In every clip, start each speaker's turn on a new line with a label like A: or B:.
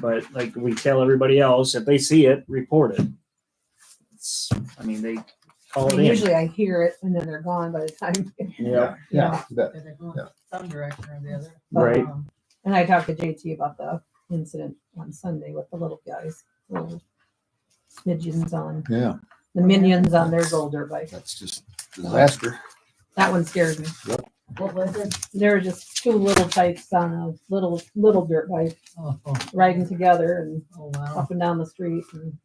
A: But like we tell everybody else, if they see it, report it. It's, I mean, they call
B: I
A: it
B: mean,
A: in.
B: Usually I hear it and then they're gone by the time.
A: Yeah.
C: Yeah, you bet.
D: Cause they go
C: Yeah.
D: some direction or the other.
A: Right.
D: Um,
B: And I talked to JT about the incident on Sunday with the little guys, little smidgens on,
C: Oh, yeah,
B: the minions on their gold dirt bike.
C: that's just disaster.
B: That one scared me.
D: What was it?
B: There were just two little types on a little, little dirt bike
D: Oh, oh,
B: riding together and
D: oh, wow.
B: up and down the street. and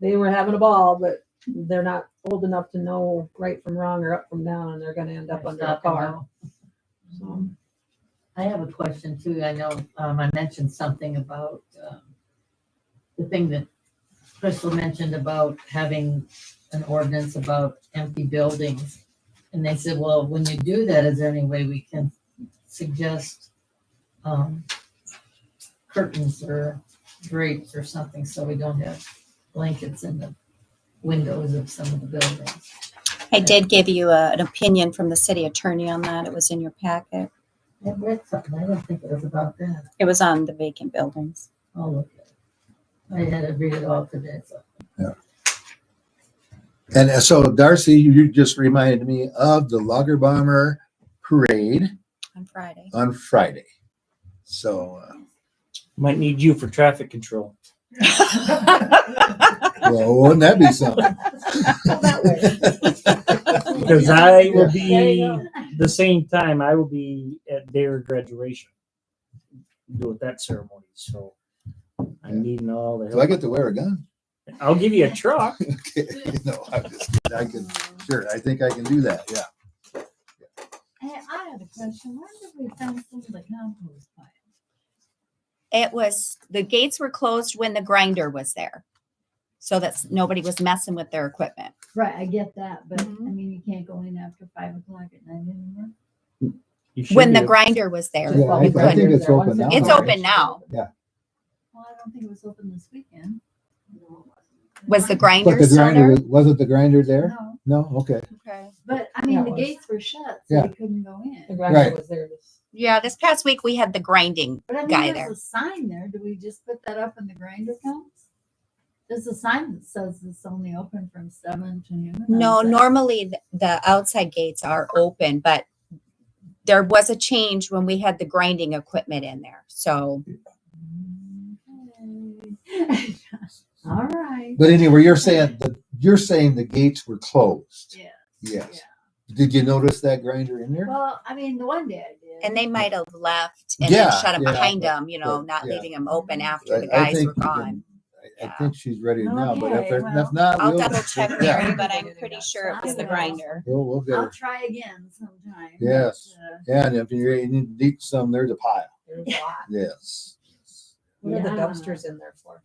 B: They were having a ball, but they're not old enough to know right from wrong or up from down, and they're gonna end up under a
D: Stop and
B: car.
D: go.
B: So,
D: I have a question too. I know, um, I mentioned something about, um, the thing that Crystal mentioned about having an ordinance about empty buildings. And they said, well, when you do that, is there any way we can suggest, um, curtains or drapes or something so we don't have blankets in the windows of some of the buildings?
E: I did give you a, an opinion from the city attorney on that. It was in your packet.
D: I read something. I don't think it was about that.
E: It was on the vacant buildings.
D: I'll look at it. I had to read it all today, so.
C: And uh, so Darcy, you just reminded me of the Lager Bomber Parade
E: On Friday.
C: on Friday. So, uh,
A: Might need you for traffic control.
C: well, wouldn't that be something?
B: that way.
A: Because I will
B: There you
A: be
B: go.
A: the same time I will be at their graduation. Doing that ceremony. So
C: Yeah.
A: I'm needing all the
C: Do I
A: help.
C: get to wear a gun?
A: I'll give you a truck.
C: Okay, no, I'm just, I can, sure, I think I can do that, yeah.
D: Hey, I have a question. Where did we find some of the compost pile?
E: It was, the gates were closed when the grinder was there. So that's, nobody was messing with their equipment.
F: Right, I get that, but I
D: Mm-hmm.
E: Mhm.
F: mean, you can't go in after five o'clock at night anymore.
A: You should
E: When the
A: be-
E: grinder was there.
C: Yeah, I-
E: you
C: I think
E: couldn't.
C: it's open now.
E: It's open now.
F: Well, I don't think it was open this weekend.
E: Was the
C: But
E: grinder
C: the
E: still
C: grinder,
E: there?
C: was- wasn't the grinder there?
F: No,
C: No, okay.
E: Okay.
F: but I mean,
B: Yeah, it
F: the
B: was.
F: gates were shut,
C: Yeah.
F: so you couldn't go
B: The
F: in.
B: grinder
C: Right.
B: was there this
E: Yeah, this past week we had the grinding.
F: But I
E: Guy
F: mean,
E: there.
F: there's a sign there. Do we just put that up when the grinder comes? There's a sign that says it's only open from seven to noon. and I
E: No,
F: was like,
E: normally th- the outside gates are open, but there was a change when we had the grinding equipment in there. So
F: "Okay." All right.
C: But anyway, you're saying, the you're saying the gates were closed?
F: Yeah.
C: Yes. Did you notice that grinder in there?
F: Well, I mean, the one day I did.
E: and they might have left and
C: Yeah,
E: then shut them
C: yeah,
E: behind them, you know,
C: but-
E: not
C: yeah.
E: leaving them open
G: Mm-hmm.
E: after the
C: I- I
E: guys
C: think
E: were
C: you can-
E: gone.
C: I- I think she's ready now, but if
F: Okay,
C: they're, if
F: well,
C: not.
E: I'll
C: we'll-
E: double check
C: yeah,
E: Mary, but I'm pretty sure it was the grinder.
C: We'll, we'll get
F: I'll
C: her.
F: try again sometime.
C: Yes.
F: but, uh,
C: Yeah, and if you're, you need to eat some, there's a pile.
B: There's a lot.
C: Yes.
B: What are the
F: Yeah.
B: dumpsters in there for?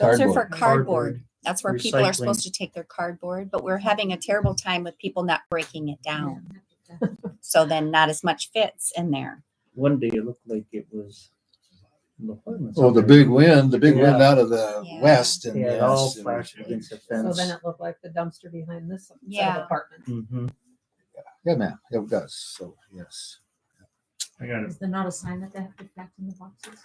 E: Those are for
C: Cardboard.
E: cardboard. That's where people are
A: Recycling.
E: supposed to take their cardboard, but we're having a terrible time with people not breaking it down. So then not as much fits in there.
A: One day it looked like it was. apartments
C: Oh,
A: out
C: the
A: there.
C: big wind, the big wind
A: Yeah.
C: out of the
E: Yeah.
C: west and.
A: Yeah, it all
C: yes, and-
A: flashed against the
B: So
A: fence.
B: then it looked like the dumpster behind this set
E: Yeah.
B: of apartments.
A: Mhm.
C: Yeah, man, it does. So, yes.
A: I got
F: Is there not a sign that they have to pack in the boxes?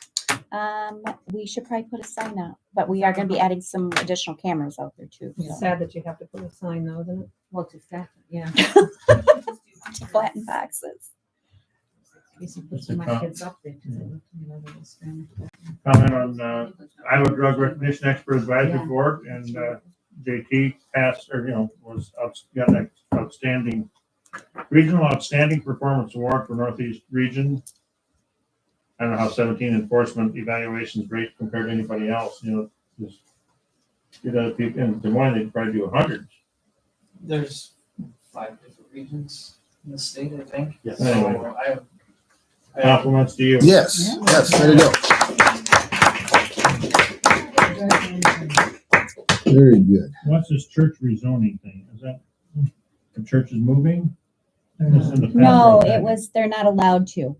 E: Um, we should probably put a sign up, but we are gonna be adding some additional cameras out there too.
B: It's
E: so.
B: sad that you have to put a sign though, isn't it?
F: Well, to stack it, yeah.
E: To flatten boxes.
F: We should put some of my kids up there. 'cause they look, you know, they're all standing.
G: comment on uh, Iowa Drug Recognition Expert Advisory Board, and uh, JT passed, or you know, was outs- got an outstanding regional outstanding performance award for Northeast Region. I don't know how seventeen enforcement evaluations rate compared to anybody else. You know, just get other people in Des Moines, they'd probably do a hundred.
H: There's five different regions in the state, I think.
G: Yes.
H: So I, I
G: Compliments to you.
C: Yes, yes, there you go. Very good.
G: What's this church rezoning thing? Is that the church is moving?
E: No, it was, they're not allowed to.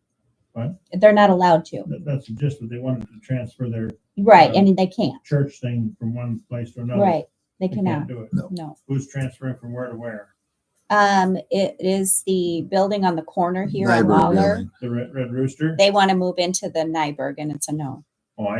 G: What?
E: They're not allowed to.
G: That- That's just that they wanted to transfer their
E: Right, and they can't.
G: church thing from one place to another.
E: Right, they
G: They can't
E: cannot,
G: do it.
E: no.
G: Who's transferring from where to where?
E: Um, it is the building on the corner here on
C: Nyberg
E: Lawler.
C: building.
G: The Red, Red Rooster? Oh,
E: They want to move into the Nyberg and it's a no.